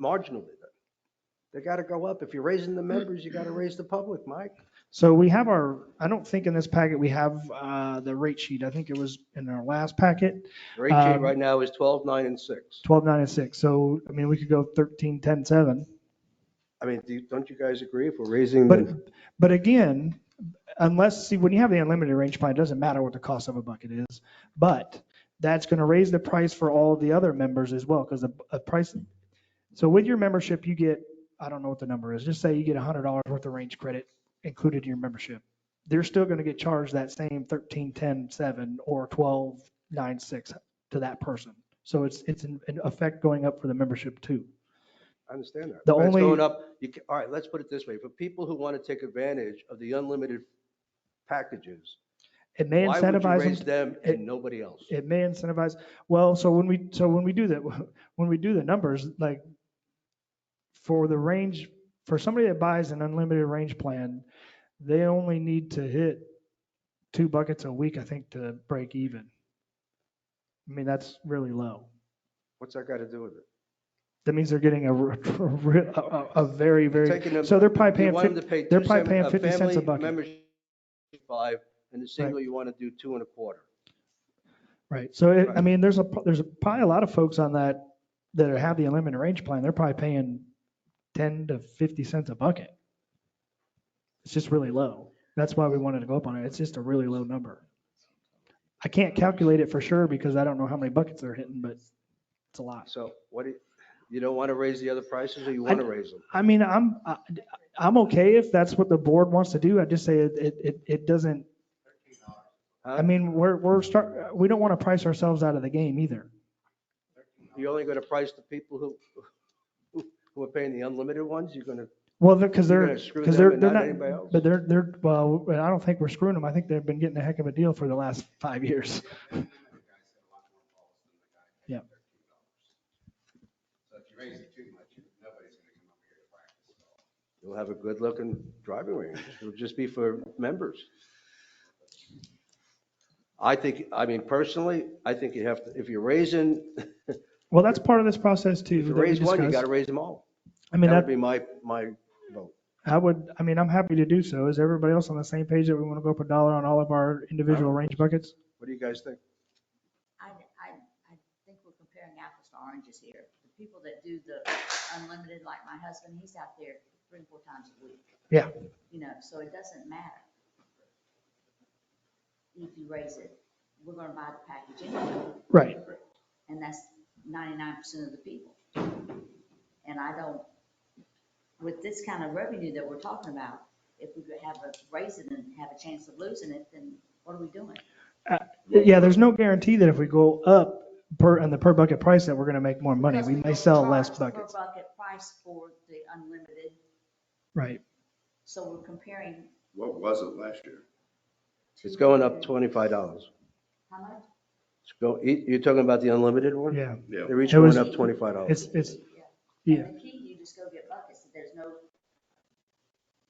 marginally. They got to go up. If you're raising Hmm. the members, you got to raise the public, Mike. So we have our, I don't think in this packet we have uh, the rate sheet. I think it was in our last packet, Rate sheet Um, right now is 12, 9, and 6. 12, 9, and 6. So, I mean, we could go 13, 10, 7. I mean, do you- don't you guys agree if we're raising But, the, but again, unless, see, when you have the unlimited range plan, it doesn't matter what the cost of a bucket is. But that's going to raise the price for all the other members as well, because the a price, so with your membership, you get, I don't know what the number is, just say you get $100 worth of range credit included in your membership. They're still going to get charged that same 13, 10, 7 or 12, 9, 6 to that person. So it's, it's in in effect going up for the membership too. I understand that. the But it's only- Going up, you, ca- all right, let's put it this way. For people who want to take advantage of the unlimited packages, It may why would you incentivize them raise them it- and nobody else? it may incentivize, well, so when we, so when we do that, when we do the numbers, like for the range, for somebody that buys an unlimited range plan, they only need to hit two buckets a week, I think, to break even. I mean, that's really low. What's that got to do with it? That means they're getting a, r- r- a, a- a very, very, Taking them- so they're probably You paying, want them fif- to pay. they're two probably seven- paying a 50 cents a family bucket. membership is Five, and the single you want to do two and a quarter. right, so it- I Right. mean, there's a, there's probably a lot of folks on that, that have the unlimited range plan, they're probably paying 10 to 50 cents a bucket. It's just really low. That's why we wanted to go up on it. It's just a really low number. I can't calculate it for sure because I don't know how many buckets they're hitting, but it's a lot. So what, do you- you don't want to raise the other prices or you want to raise them? I mean, I'm, I- I'm okay if that's what the board wants to do. I just say it, it, it- it doesn't, I Huh? mean, we're, we're start, we don't want to price ourselves out of the game either. You're only going to price the people who, who- who are paying the unlimited ones? You're going to, Well, because you're they're, going to screw because them they're, and they're not anybody else? not, but they're, they're, well, I don't think we're screwing them. I think they've been getting a heck of a deal for the last five years. Yeah. So if you raise it too much, nobody's gonna come over here to practice. You'll have a good looking driving range. It'll just be for members. I think, I mean, personally, I think you have, to if you're raising, Well, that's part of this process too. if you that we raise one, you discussed. got to raise them all. I mean, That would that, be my, my vote. I would, I mean, I'm happy to do so. Is everybody else on the same page that we want to go up a dollar on all of our individual range buckets? What do you guys think? I, I, I think we're comparing apples to oranges here. The people that do the unlimited, like my husband, he's out there three, four times a week. Yeah. You know, so it doesn't matter. If you raise it, we're gonna buy the package anyway, Right. and that's ninety-nine percent of the people. And I don't, with this kind of revenue that we're talking about, if we could have a, raise it and have a chance of losing it, then what are we doing? Yeah, there's no guarantee that if we go up per, on the per bucket price that we're going to make more money. Because We may don't sell less charge per buckets. Bucket price for the unlimited, Right. so we're comparing. What was it last year? It's two going up different- $25. It's How much? go- you- You're talking about the unlimited one? Yeah. Yeah. They're each It was- going up $25. It's, it's, Yeah. yeah. And the key, you just go get buckets, there's no.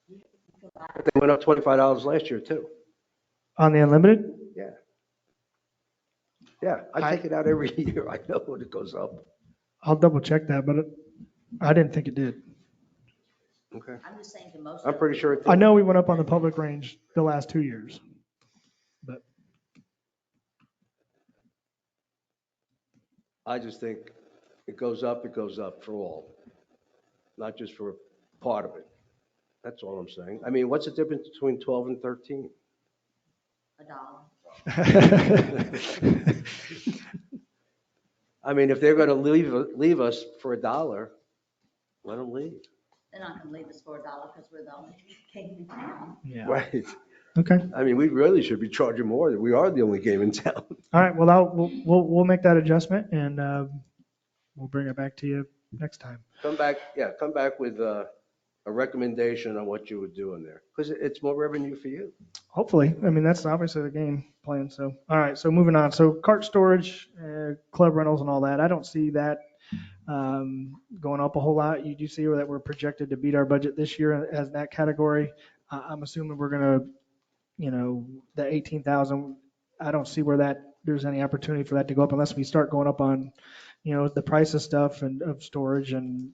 you can buy- They went up $25 last year too. On the unlimited? Yeah. Yeah, I take it out every year. I know when it goes up. I'll double check that, but it- I didn't think it did. Okay. I'm just saying to most. I'm of pretty sure it I did. know we went up on the public range the last two years. I just think it goes up, it goes up for all, not just for a part of it. That's all I'm saying. I mean, what's the difference between 12 and 13? A dollar. I mean, if they're going to leave, leave us for a dollar, let them leave. They're not gonna leave us for a dollar, because we're the only game in town. Yeah. Right. Okay. I mean, we really should be charging more. We are the only game in town. All right. Well, I'll, we'll, we'll, we'll make that adjustment and, uh, we'll bring it back to you next time. Come back, yeah, come back with uh, a recommendation on what you would do in there, because it's more revenue for you. Hopefully. I mean, that's obviously the game plan. So, all right. So moving on. So cart storage, uh, club rentals and all that. I don't see that um, going up a whole lot. You do see that we're projected to beat our budget this year as that category. I- I'm assuming we're going to, you know, the 18,000, I don't see where that, there's any opportunity for that to go up unless we start going up on, you know, the price of stuff and of storage and,